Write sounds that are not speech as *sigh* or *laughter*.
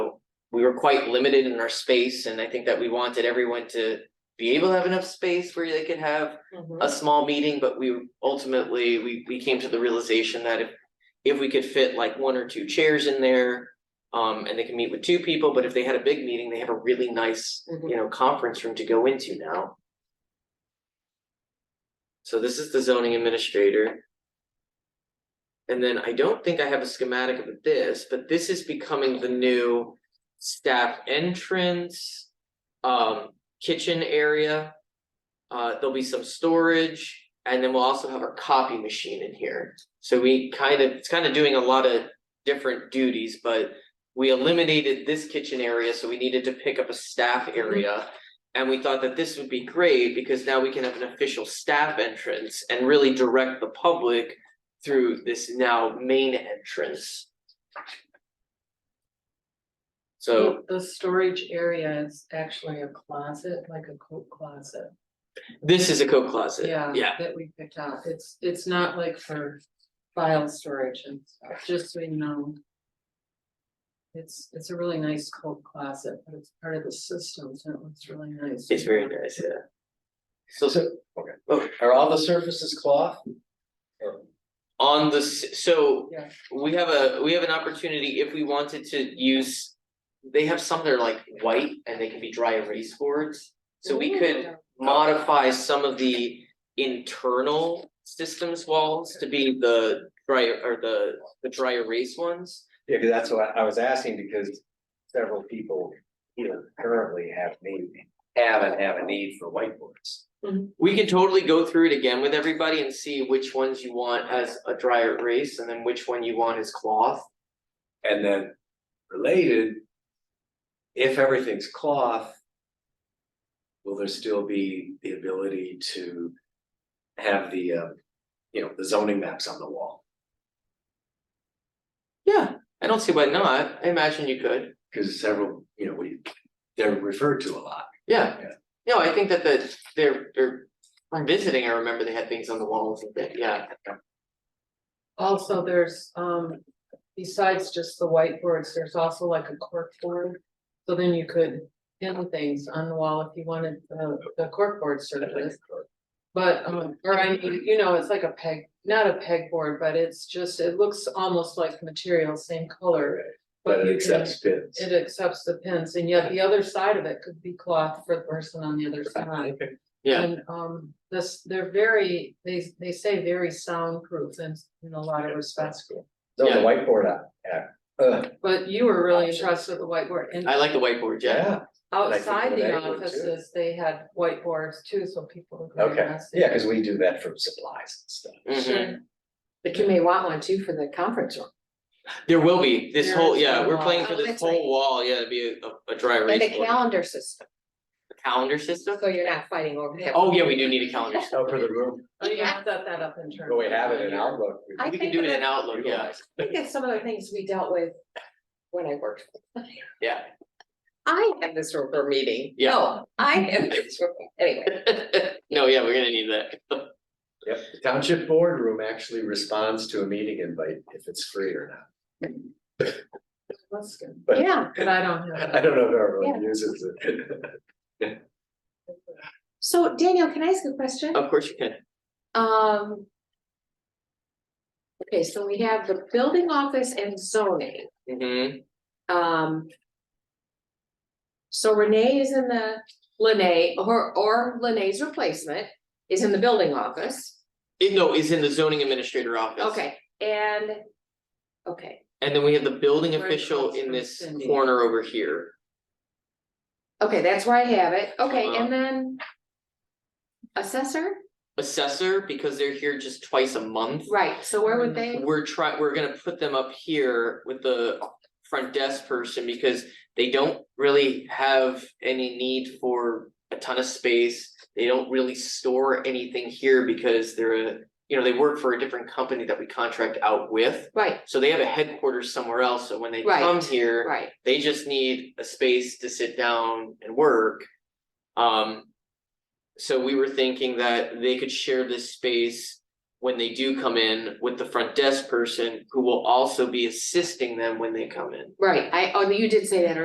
we were quite limited in our space and I think that we wanted everyone to be able to have enough space where they could have a small meeting, but we ultimately, we we came to the realization that if if we could fit like one or two chairs in there, um, and they can meet with two people, but if they had a big meeting, they have a really nice, you know, conference room to go into now. So this is the zoning administrator. And then I don't think I have a schematic of this, but this is becoming the new staff entrance, um, kitchen area. Uh, there'll be some storage and then we'll also have our copy machine in here. So we kind of, it's kind of doing a lot of different duties, but we eliminated this kitchen area, so we needed to pick up a staff area. And we thought that this would be great because now we can have an official staff entrance and really direct the public through this now main entrance. So. The storage area is actually a closet, like a coat closet. This is a coat closet. Yeah. Uh, Yeah, That we picked out. It's, it's not like for file storage and stuff, just so you know. It's, it's a really nice coat closet, but it's part of the system, so it looks really nice. it's very nice, yeah. So So, Oh. okay, are all the surfaces cloth? Or- on the, s- so Yeah. we have a, we have an opportunity if we wanted to use. They have some that are like white and they can be dry erase boards, so we could modify some of the internal systems walls to be the dry or the the dry erase ones. Yeah, 'cause that's what I was asking, because several people here currently have need, have and have a need for whiteboards. We can totally go through it again with everybody and see which ones you want as a dry erase and then which one you want as cloth. And then related, if everything's cloth, will there still be the ability to have the, uh, you know, the zoning maps on the wall? Yeah, I don't see why not. I imagine you could. Because several, you know, we, they're referred to a lot. Yeah. Yeah. No, I think that the, they're, they're, I'm visiting, I remember they had things on the walls and that, yeah. Also, there's, um, besides just the whiteboards, there's also like a corkboard. So then you could pin things on the wall if you wanted the, the corkboard surface. But, um, or I mean, you know, it's like a peg, not a pegboard, but it's just, it looks almost like material, same color. But you it can- accepts bids. It accepts the pins, and yet the other side of it could be cloth for the person on the other side. Yeah. And um this, they're very, they they say very soundproof in in a lot of respects. So the Yeah. whiteboard app, yeah, uh, But you were really impressed with the whiteboard and I like the whiteboard, yeah. yeah, I think outside the that would too. offices, they had whiteboards too, so people would. write okay, messages. yeah, Mm-hmm. cause we do that for supplies and stuff. Mhm. But you may want one too for the conference room. There will be, this There whole, is yeah, one we're wall. playing for Oh, this that's whole right. wall, yeah, it'd be a, a dry erase And a board. calendar system, Calendar system? so you're not fighting over that. Oh, yeah, we do need a calendar. system. Oh, for the room, Oh, you have set that up in terms. but we have it in of- Outlook. I We can think do it in that- Outlook, yeah, Utilize. I think that's some of the things we dealt with when I worked. yeah. *laughs* I have this room for a meeting. Yeah. No, Oh, I have this room, anyway. No, yeah, we're gonna need that. Yep, the township boardroom actually responds to a meeting invite if it's free or not, *laughs* That's good, but Yeah, but I don't have. I don't know if everyone uses it. *laughs* so Daniel, can I ask a question? Of course you can. Um. Okay, so we have the building office and zoning, hmm um. So Renee is in the, Lene, or, or Lene's replacement is in the building office. It, no, it's in the zoning administrator office. Okay, and, okay, And then we have the building Where it official comes in from, this Cindy. corner over here. okay, that's where I have it, okay, Uh-huh. and then. Assessor, assessor because they're here just twice a month. right, so where would they, We're try, we're gonna put them up here with the front desk person because they don't really have any need for a ton of space. They don't really store anything here because they're a, you know, they work for a different company that we contract out with. right, So they have a headquarters somewhere else, so when they Right, come here, right, they just need a space to sit down and work. Um. So we were thinking that they could share this space. When they do come in with the front desk person who will also be assisting them when they come in. right, I, oh, you did say that